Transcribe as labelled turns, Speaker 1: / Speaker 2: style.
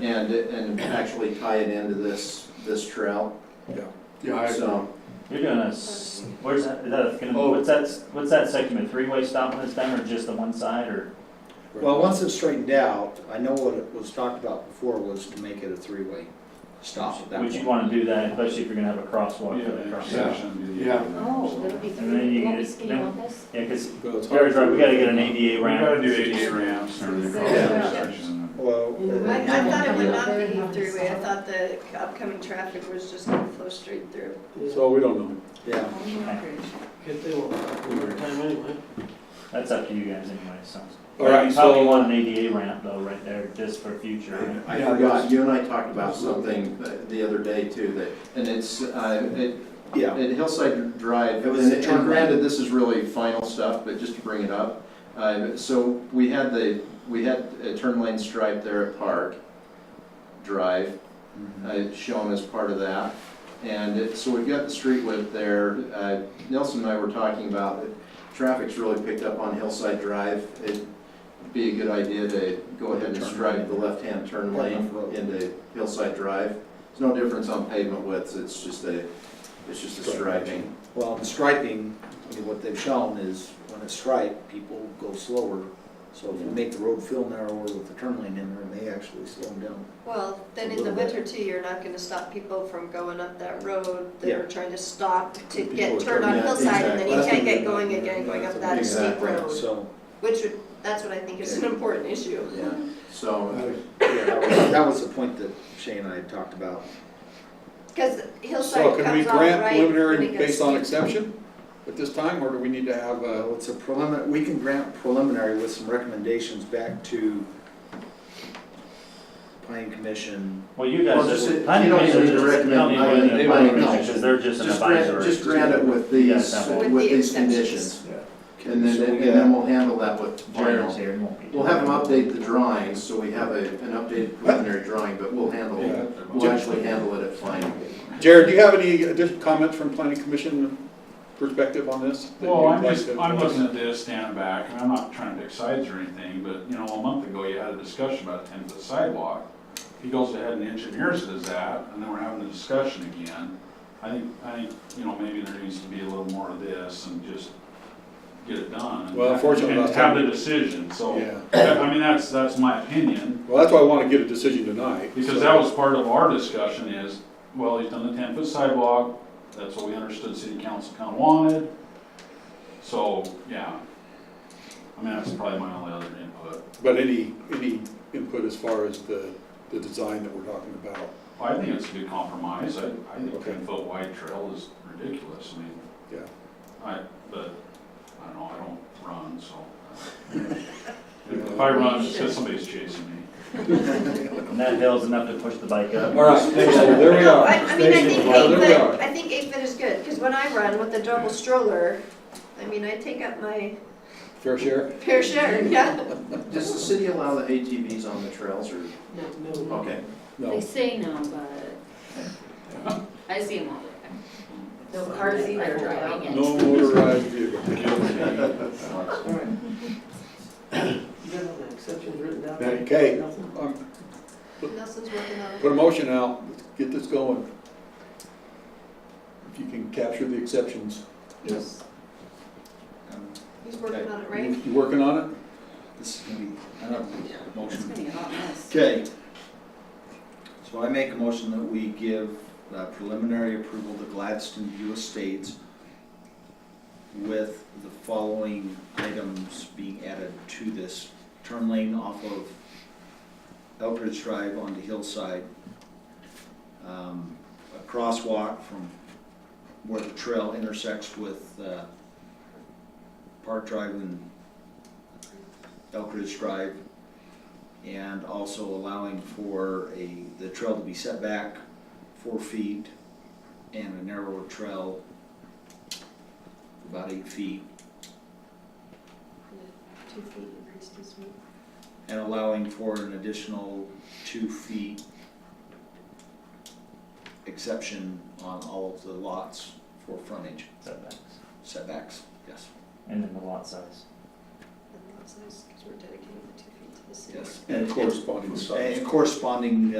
Speaker 1: and, and actually tie it into this, this trail,
Speaker 2: Yeah, I,
Speaker 1: so.
Speaker 3: You're doing a, s- where's that, is that gonna,
Speaker 2: Oh.
Speaker 3: what's that, what's that segment, a three-way stop when it's done, or just the one side, or?
Speaker 4: Well, once it's straightened out, I know what it was talked about before was to make it a three-way stop at that
Speaker 3: Would you
Speaker 4: point.
Speaker 3: wanna do that, especially if you're gonna have a crosswalk for that
Speaker 2: yeah,
Speaker 3: crosswalk?
Speaker 2: intersection, yeah.
Speaker 5: Oh, that'll be
Speaker 3: And then
Speaker 5: three,
Speaker 3: you
Speaker 5: won't be
Speaker 3: get-
Speaker 5: speed
Speaker 3: then-
Speaker 5: on this?
Speaker 3: Yeah, cause
Speaker 6: Well, it's
Speaker 3: Gary's right,
Speaker 6: hard-
Speaker 3: we gotta get an ADA
Speaker 2: We
Speaker 3: ramp.
Speaker 2: gotta do ADA ramps or the cross
Speaker 5: Yeah.
Speaker 2: intersection.
Speaker 4: Well,
Speaker 7: I,
Speaker 4: and-
Speaker 7: I thought it would not
Speaker 5: Yeah.
Speaker 7: be three-way, I thought the upcoming traffic was just gonna flow straight through.
Speaker 6: So we don't know.
Speaker 4: yeah,
Speaker 8: If they won't, time anyway.
Speaker 3: That's up to you guys anyway, so.
Speaker 6: All right,
Speaker 3: You probably
Speaker 6: so,
Speaker 3: want an ADA ramp though, right there, just for future. right?
Speaker 1: I forgot, you and I talked about something the- the other day too, that, and it's, uh, it,
Speaker 4: yeah,
Speaker 1: At Hillside Drive,
Speaker 4: It was a
Speaker 1: and
Speaker 4: turn
Speaker 1: and granted, this is really final stuff, but just to bring it up, uh, so we had the, we had a turn lane stripe there at Park Drive,
Speaker 4: Mm-hmm.
Speaker 1: uh, shown as part of that. And it- so we've got the street width there. Uh, Nelson and I were talking about it. Traffic's really picked up on Hillside Drive. It'd be a good idea to go ahead and
Speaker 4: Turn
Speaker 1: stripe
Speaker 4: lane.
Speaker 1: the left-hand turn
Speaker 4: Yeah,
Speaker 1: lane
Speaker 4: road.
Speaker 1: into Hillside Drive. There's no difference on pavement widths, it's just a, it's just a striping.
Speaker 4: well, the striping, I mean, what they've shown is when it's striped, people go slower. So if you make the road feel narrower with the turn lane in there, it may actually slow them down.
Speaker 7: Well, then in the winter too, you're not gonna stop people from going up that road that
Speaker 4: Yeah.
Speaker 7: are trying to stop to
Speaker 6: People
Speaker 7: get
Speaker 6: are
Speaker 7: turned on
Speaker 1: turning- yeah,
Speaker 7: hillside and then you
Speaker 1: exactly.
Speaker 7: can't get going again, going up that steep
Speaker 1: Exactly.
Speaker 7: road.
Speaker 4: So,
Speaker 7: Which would, that's what I think is an important issue.
Speaker 4: yeah,
Speaker 1: So,
Speaker 4: yeah, that was, that was the point that Shane and I had talked about.
Speaker 7: Cause
Speaker 6: so
Speaker 7: hillside
Speaker 6: can we
Speaker 7: comes off right.
Speaker 6: grant
Speaker 7: when
Speaker 6: preliminary
Speaker 7: it
Speaker 6: based
Speaker 7: goes
Speaker 6: on
Speaker 7: to-
Speaker 6: exception at this time, or do we need to have uh, a?
Speaker 4: Well, it's a preliminary, we can grant preliminary with some recommendations back to planning commission.
Speaker 3: Well, you
Speaker 1: Well,
Speaker 3: guys,
Speaker 1: just-
Speaker 3: just-
Speaker 1: you
Speaker 3: planning
Speaker 1: don't
Speaker 3: commission
Speaker 1: even
Speaker 3: just, you
Speaker 1: recommend
Speaker 3: don't even
Speaker 1: mine,
Speaker 3: need
Speaker 1: they
Speaker 3: a
Speaker 1: might
Speaker 3: planning
Speaker 1: not.
Speaker 3: commission, cause they're just an
Speaker 1: just grant,
Speaker 3: advisor.
Speaker 1: just grant it with these,
Speaker 3: Yeah,
Speaker 7: With
Speaker 1: with
Speaker 7: the
Speaker 1: these
Speaker 7: exceptions.
Speaker 1: conditions.
Speaker 4: Okay,
Speaker 1: And then,
Speaker 4: so we
Speaker 1: and
Speaker 4: got-
Speaker 1: then we'll handle that with
Speaker 3: Jared's
Speaker 1: final.
Speaker 3: here, he won't be.
Speaker 1: We'll have them update the drawings, so we have a, an updated preliminary drawing, but we'll handle, we'll actually handle it at final.
Speaker 6: Jared, do you have any additional comments from planning commission perspective on this? that
Speaker 2: Well,
Speaker 6: you'd
Speaker 2: I'm
Speaker 6: like
Speaker 2: just,
Speaker 6: to-
Speaker 2: I'm looking at this, standing back, and I'm not trying to pick sides or anything, but, you know, a month ago, you had a discussion about a ten foot sidewalk. He goes ahead and engineers it as that, and then we're having a discussion again. I think, I think, you know, maybe there needs to be a little more of this and just get it done. and-
Speaker 6: Well, unfortunately,
Speaker 2: And
Speaker 6: last
Speaker 2: have
Speaker 6: time-
Speaker 2: the decision, so,
Speaker 6: Yeah.
Speaker 2: I mean, that's, that's my opinion.
Speaker 6: Well, that's why I want to get a decision tonight.
Speaker 2: Because that was part of our discussion is, well, he's done the ten foot sidewalk, that's what we understood city council kind of wanted. So, yeah. I mean, that's probably my only other input.
Speaker 6: But any, any input as far as the, the design that we're talking about?
Speaker 2: I think it's a good compromise, I, I think
Speaker 6: Okay.
Speaker 2: ten foot wide trail is ridiculous, I mean.
Speaker 6: Yeah.
Speaker 2: I, but, I don't know, I don't run, so. If I run, it's because somebody's chasing me.
Speaker 3: And that hill's enough to push the bike up.
Speaker 6: right, so there we
Speaker 7: No,
Speaker 6: are.
Speaker 7: I, I mean, I think
Speaker 6: Well,
Speaker 7: eight
Speaker 6: there we
Speaker 7: foot,
Speaker 6: are.
Speaker 7: I think eight foot is good, because when I run with the double stroller, I mean, I take up my
Speaker 6: Fair share?
Speaker 7: fair share, yeah.
Speaker 1: Does the city allow the ATVs on the trails or?
Speaker 8: No, no.
Speaker 1: Okay.
Speaker 5: They
Speaker 6: No.
Speaker 5: say no, but I see them all the time.
Speaker 7: No cars either,
Speaker 5: Driving it.
Speaker 6: No motorized vehicle.
Speaker 8: All right. You got all the exceptions written down?
Speaker 6: Okay.
Speaker 8: Nothing?
Speaker 6: Um,
Speaker 7: Nelson's working on it.
Speaker 6: Put a motion out, let's get this going. If you can capture the exceptions.
Speaker 7: He's, he's working on it, right?
Speaker 6: You- You working on it?
Speaker 4: Um, This is gonna be, I don't,
Speaker 5: It's
Speaker 4: motion.
Speaker 5: gonna be a hot mess.
Speaker 4: Okay. So I make a motion that we give uh, preliminary approval to Gladstone View Estates with the following items being added to this. Turn lane off of Elbridge Drive onto Hillside. Um, A crosswalk from where the trail intersects with uh, Park Drive and Elbridge Drive and also allowing for a, the trail to be set back four feet and a narrower trail about eight feet,
Speaker 7: Two feet increased his weight.
Speaker 4: and allowing for an additional two feet exception on all of the lots for frontage
Speaker 3: Setbacks.
Speaker 4: setbacks, yes,
Speaker 3: And then the lot size.
Speaker 7: And that's nice, because we're dedicating the two feet to the city.
Speaker 4: yes.
Speaker 6: And corresponding size.
Speaker 4: And corresponding